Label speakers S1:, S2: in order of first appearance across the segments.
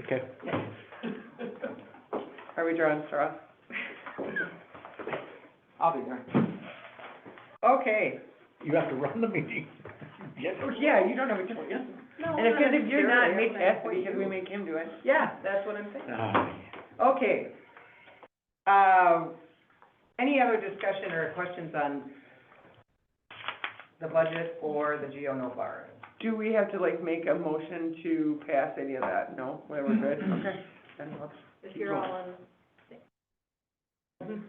S1: Okay.
S2: Are we drawing straws?
S3: I'll be there.
S2: Okay,
S1: You have to run the meeting. Yes.
S2: Oh, yeah, you don't know what you're doing. And if, if you're not, make that, because we make him do it. Yeah, that's what I'm saying.
S1: Ah,
S2: Okay. Uh, any other discussion or questions on the budget or the GO no borrowing?
S3: Do we have to like make a motion to pass any of that? No, we we're good, okay. Then we'll-
S4: If you're all in,
S1: Because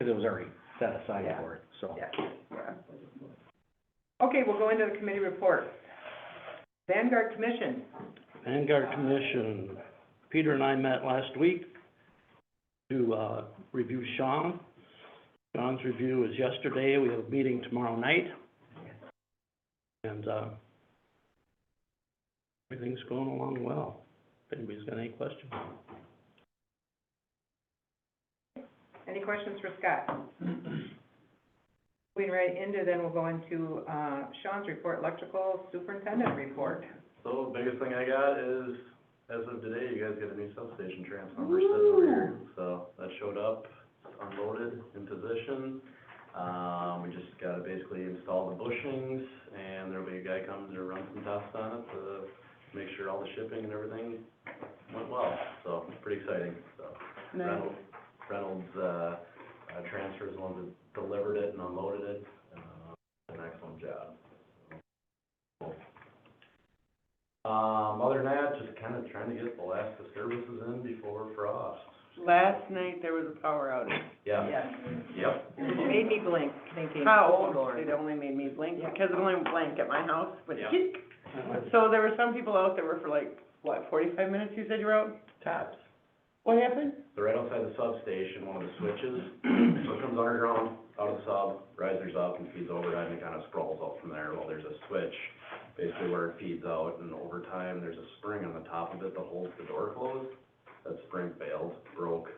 S1: it was already set aside
S3: Yeah.
S1: for it, so.
S2: Yeah.
S3: yeah.
S2: Okay, we'll go into the committee report. Vanguard Commission,
S5: Vanguard Commission, Peter and I met last week to, uh, review Sean. Sean's review is yesterday, we have a meeting tomorrow night. And, uh, everything's going along well. If anybody's got any questions?
S2: any questions for Scott? Lean right into, then we'll go into, uh, Sean's report, electrical superintendent report.
S6: So biggest thing I got is, as of today, you guys got a new substation transformer sitting over here. So that showed up, it's unloaded, in position. Um, we just gotta basically install the bushings and there'll be a guy comes to run some tests on it to make sure all the shipping and everything went well. So it's pretty exciting, so. Reynolds, Reynolds, uh, uh, transfers the ones that delivered it and unloaded it, uh, did an excellent job. Um, other than that, just kind of trying to get the last disturbances in before frost.
S3: Last night there was a power outage.
S6: Yeah,
S2: Yes,
S6: yep,
S2: it made me blink, thinking.
S3: How
S2: oh, Lord.
S3: old? It only made me blink because it only blinked at my house, but
S6: Yeah.
S3: tick. So there were some people out that were for like, what, forty-five minutes you said you were out?
S6: taps.
S3: What happened?
S6: So right outside the substation, one of the switches, so it comes underground, out of the sub, rises up and feeds overhead and kind of sprawls out from there. Well, there's a switch, basically where it feeds out, and over time, there's a spring on the top of it that holds the door closed. That spring failed, broke,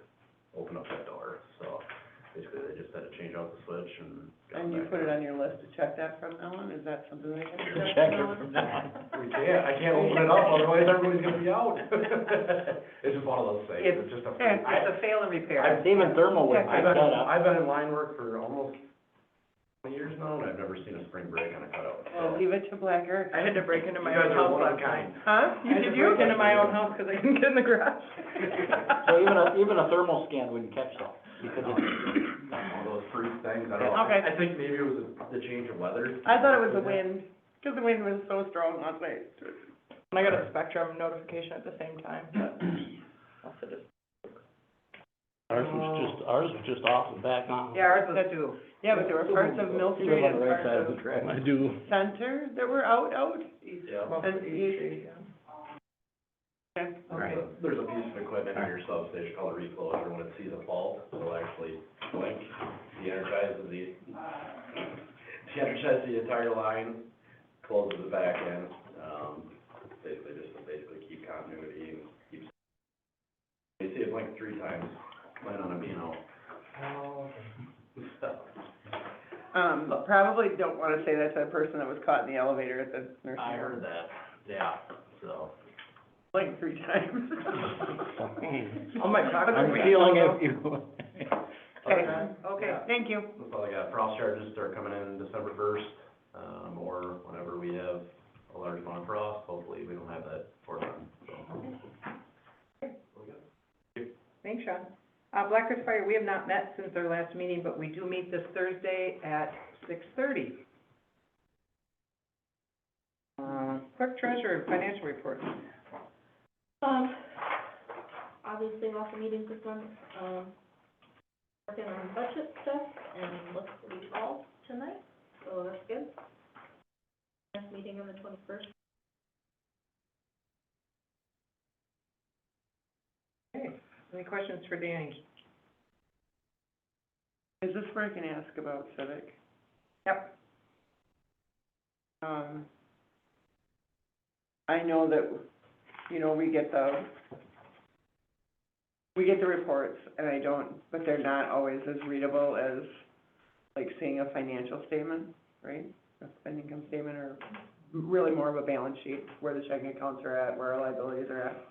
S6: opened up that door, so basically they just had to change out the switch and. got
S3: And you
S6: back
S3: put it on your list to check that from Ellen? Is that something they can?
S1: Check it from now
S6: We can't, I can't open it up, otherwise everybody's gonna be out. It's just one of those things, it's just a.
S2: It's it's a fail and repair.
S6: I've-
S1: Even thermal
S3: with
S6: I've been, I've been in line work for almost twenty years now, and I've never seen a spring break on a cutout.
S3: Well, leave it to Black Earth.
S2: I had to break into
S6: You
S2: my
S6: guys
S2: own
S6: are
S2: house
S6: one of
S2: last night.
S6: a kind.
S3: Huh?
S2: You did you? Into my own house because I couldn't get in the garage.
S1: So even a, even a thermal scan wouldn't catch that, because
S6: All those freak things, I don't know.
S3: Okay.
S6: I think maybe it was the change of weather.
S3: I thought it was the wind, because the wind was so strong last night.
S7: And I got a Spectrum notification at the same time, but also just
S5: Ours was just, ours was just off and back on.
S2: Yeah, ours was too.
S3: Yeah, but there were parts of Mill Street and parts of
S1: track.
S5: I do,
S3: Center that were out, out.
S6: Yeah.
S3: And you- Okay.
S6: There's a- There's a piece of equipment in your substation called a recloser, when it sees a fault, it'll actually blink, de-energizes the, de-energizes the entire line, closes the back end, um, basically just to basically keep continuity and keeps. You see it blink three times, plan on it being out. Oh, So,
S3: Um, probably don't want to say that to the person that was caught in the elevator at the nursing
S6: I
S3: home,
S6: heard that, yeah, so.
S3: like three times.
S7: Oh my God.
S1: I'm feeling it, you.
S3: Okay.
S2: Okay.
S6: Yeah.
S3: Thank you.
S6: That's all I got. Frost uh, charges start coming in December first, um, or whenever we have a large amount of frost. Hopefully, we don't have that for them, so.
S2: Thanks, Sean. Uh, Black Earth Fire, we have not met since our last meeting, but we do meet this Thursday at six thirty. Uh, clerk treasurer, financial report.
S4: um, obviously lots of meetings this month, um, working on budget stuff and looks to be all tonight, so that's good. Next meeting on the twenty-first.
S2: Any questions for Danny?
S3: Is this where I can ask about civic?
S2: Yep.
S3: Um, I know that, you know, we get the, we get the reports, and I don't, but they're not always as readable as, like, seeing a financial statement, right? A spending income statement, or really more of a balance sheet, where the checking accounts are at, where our liabilities are at.